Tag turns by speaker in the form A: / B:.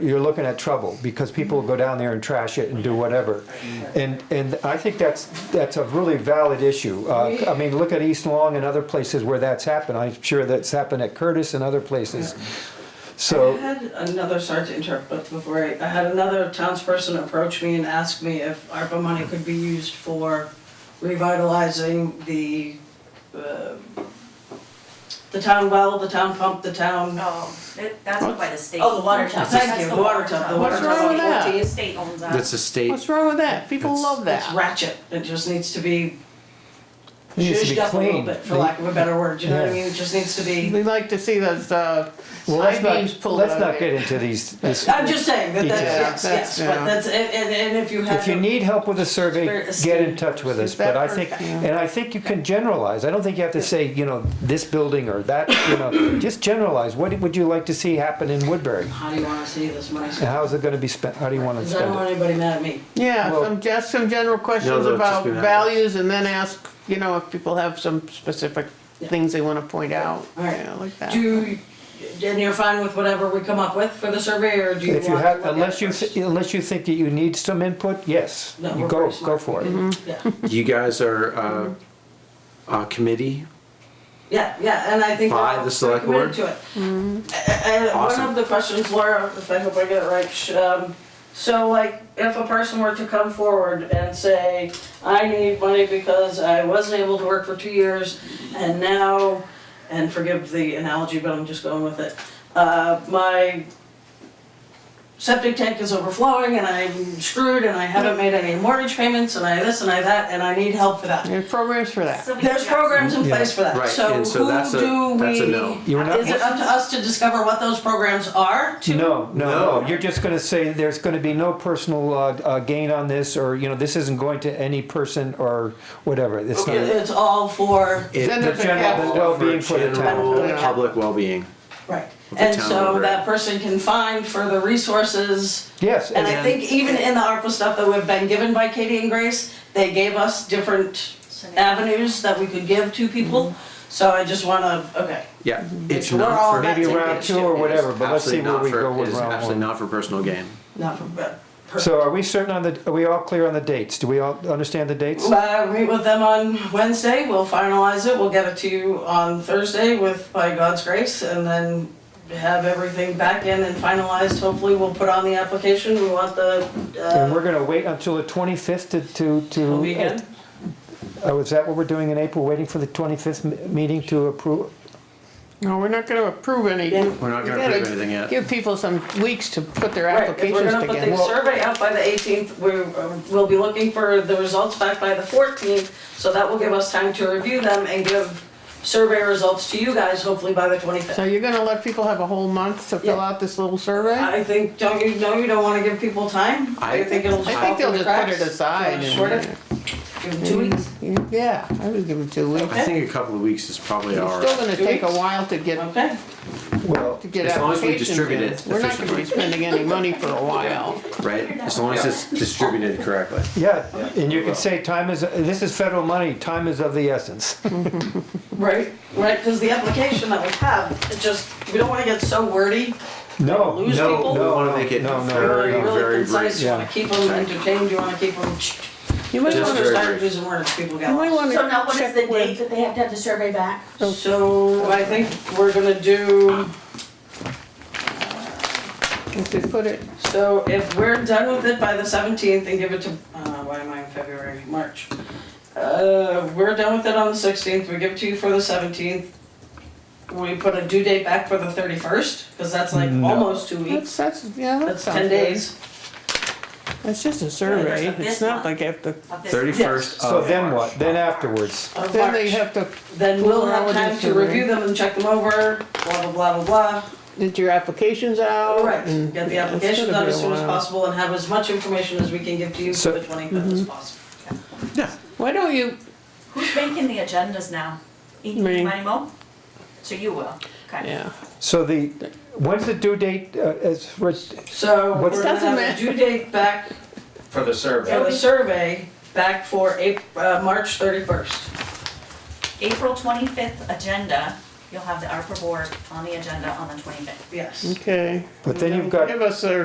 A: you're looking at trouble because people will go down there and trash it and do whatever. And, and I think that's, that's a really valid issue. Uh, I mean, look at East Long and other places where that's happened. I'm sure that's happened at Curtis and other places.
B: I
A: So,
B: had another, sorry to interrupt, but before I, I had another townsperson approach me and ask me if ARPA money could be used for revitalizing the, uh, the town well, the town pump, the town,
C: No, that- Oh, that's by the state.
B: oh, the water tub,
C: That's
B: thank you,
C: the
B: the water tub, the water
D: What's wrong
B: tub.
D: with that?
C: The state owns that.
E: That's a state.
D: What's wrong with that? People
E: It's-
D: love
B: It's
D: that.
B: ratchet, it just needs to be
A: it needs to
B: zhuzhed
A: be
B: up a little
A: clean.
B: bit, for lack of a better word, you know what I
A: Yeah.
B: mean? It just needs to
D: We
B: be,
D: like to see those, uh,
A: Well, let's
D: side beams
A: not,
D: pulled
A: let's
D: out of
A: not
D: there.
A: get into these, this.
B: I'm just saying that,
A: Yeah,
B: that's, yes, yes,
D: that's-
B: but
D: yeah.
B: that's, and, and, and if you have.
A: If you
B: a-
A: need help with a survey,
B: Spirit-
A: get in touch with us,
D: Is that
A: but I think,
D: perfect?
A: and I think you can generalize, I don't think you have to say, you know, this building or that, you know, just generalize, what would you like to see happen in Woodbury?
B: How do you wanna see this money
A: And
B: spent?
A: how's it gonna be spent, how do you wanna
B: Cause I don't
A: spend it?
B: want anybody mad at me.
D: Yeah,
A: Well-
D: some, just some general questions
E: they'll just
D: about
E: be mad.
D: values and then ask, you know, if people have some specific
B: Yeah.
D: things they wanna point out,
B: All right.
D: Yeah, like that.
B: Do, and you're fine with whatever we come up with for the survey, or do you want?
A: If you
B: to
A: have,
B: look at
A: unless you,
B: first?
A: thi- unless you think that you need some input, yes,
B: No,
A: you
B: we're
A: go,
B: very smart.
A: go for
B: Mm-hmm.
A: it.
B: Yeah,
E: You guys are uh, a committee.
B: yeah, yeah, and I think
E: By
B: we're
E: the select
B: committed
E: board?
B: to it. And one
E: Awesome.
B: of the questions, Laura, if I hope I get it right, sh- um, so like, if a person were to come forward and say, I need money because I wasn't able to work for two years, and now, and forgive the analogy, but I'm just going with it, uh, my septic tank is overflowing and I'm screwed and I haven't made any mortgage payments and I this and I that and I need help for that.
D: There's programs for that.
C: So we
B: There's
C: just-
B: programs in place for that,
E: Right,
B: so
E: and so that's a-
B: who do we?
E: that's a no.
A: You're not-
B: Is it up to us to discover what those programs are to?
A: No, no, no,
E: No.
A: you're just gonna say there's gonna be no personal, uh, uh, gain on this, or, you know, this isn't going to any person or whatever, it's not.
B: It's all for,
E: It-
D: Then there's a
A: general
D: capital.
A: well-being for the
E: general
B: town.
E: Public well-being.
B: right,
E: The
B: and
E: town
B: so
E: over.
B: that person can find further resources.
A: Yes,
B: And
A: and
B: I think even in the ARPA stuff that we've been given by Katie and Grace, they gave us different avenues that we could give to people.
E: Mm-hmm.
B: So I just wanna, okay,
E: Yeah, it's
B: We're all
E: not for.
B: about
A: Mm-hmm. maybe
B: I think
A: round
B: it
A: two
B: should-
A: or
B: it
A: whatever,
E: it's
A: but let's see
E: absolutely
A: where
E: not
A: we
E: for-
A: go
E: It
A: with
E: is
A: round
E: absolutely
A: one.
E: not for personal gain.
B: not for, but.
A: So are we certain on the, are we all clear on the dates? Do we all understand the dates?
B: Uh, meet with them on Wednesday, we'll finalize it, we'll get it to you on Thursday with, by God's grace, and then have everything back in and finalized, hopefully we'll put on the application, we want the,
A: And
B: uh,
A: we're gonna wait until the twenty-fifth to, to, to.
B: weekend.
A: Oh, is that what we're doing in April, waiting for the twenty-fifth meeting to approve?
D: No, we're not gonna approve any.
B: Yeah.
E: We're not
D: You
E: gonna
D: gotta
E: approve anything yet.
D: Give people some weeks to put their
B: Right, if we're
D: applications
B: gonna put the
D: together.
B: survey out by the eighteenth, we're, we'll be looking for the results back by the fourteenth, so that will give us time to review them and give survey results to you guys, hopefully by the twenty-fifth.
D: So you're gonna let people have a whole month to fill
B: Yeah. Uh,
D: out this little survey?
B: I think, don't you, no, you don't wanna give people time?
E: I-
B: think it'll
D: I
B: fall
D: think they'll
B: through
D: just
B: the
D: put it
B: cracks.
D: aside and.
B: Short it, give them two weeks.
D: Yeah, I would give them two weeks.
E: I think a couple of weeks is probably
D: It's
E: our,
D: still gonna
B: Two
D: take a
B: weeks.
D: while to get,
B: Okay,
A: Well,
D: to get applications in.
E: As long as we distribute it
D: We're not gonna be
E: efficiently.
D: spending any money for a while.
E: right? As long as it's distributed correctly.
A: yeah, and you could say time is, this is federal money, time is of the essence.
B: right, right, because the application that we have, it just, we don't wanna get so wordy,
A: No,
B: Lose
A: no,
B: people?
A: no,
E: We wanna
A: no,
E: make it
A: no, no.
B: you wanna be
E: Very, very
B: really concise, you
A: brief.
B: wanna keep them entertained, you wanna keep them.
D: You might
B: Just
D: wanna,
E: Just
B: wanna
E: very
B: start
E: brief.
B: using words, people get
D: you might
B: lost.
C: So now
D: wanna
C: what is
D: check
C: the date
D: with,
C: that they have to have the survey back?
B: So I think we're gonna do,
D: if we put it,
B: so if we're done with it by the seventeenth and give it to, uh, why am I in February, March? Uh, we're done with it on the sixteenth, we give it to you for the seventeenth. We put a due date back for the thirty-first, because that's
D: Mm,
B: like
A: No.
B: almost two weeks.
D: that's, that's, yeah, that
B: That's
D: sounds
B: ten
D: good.
B: days.
D: It's just a
C: that's
D: survey,
C: not
D: it's
C: this
D: not
C: month.
D: like after,
C: Of this-
E: Thirty-first of
A: So then
E: March.
A: what? Then afterwards,
B: of
D: then they
B: March.
D: have to,
B: Then we'll have
D: Well,
B: time
D: just
B: to
D: a
B: review
D: re-
B: them and check them over, blah, blah, blah, blah, blah.
D: get your applications out.
B: All right,
D: and-
B: get the
D: Oh, mm, yeah, it's
B: applications
D: gonna
B: out
D: be a
B: as soon as
D: while.
B: possible and have as much information as we can give to you for
A: So-
B: the twenty-fifth
D: mm-hmm.
B: as possible.
D: Why don't you,
C: Who's making the agendas now? E-
D: Me.
C: Mo? So you will, okay.
D: yeah,
A: so the, when's the due date, uh, as, Rich-
B: So we're
A: What's-
B: gonna
D: Doesn't
B: have a
D: matter.
B: due date back
F: For the survey.
B: for the survey, back for April, uh, March thirty-first.
C: April twenty-fifth agenda, you'll have the ARPA board on the agenda on the twenty-fifth.
B: Yes.
D: okay.
A: but then you've got
D: Give us a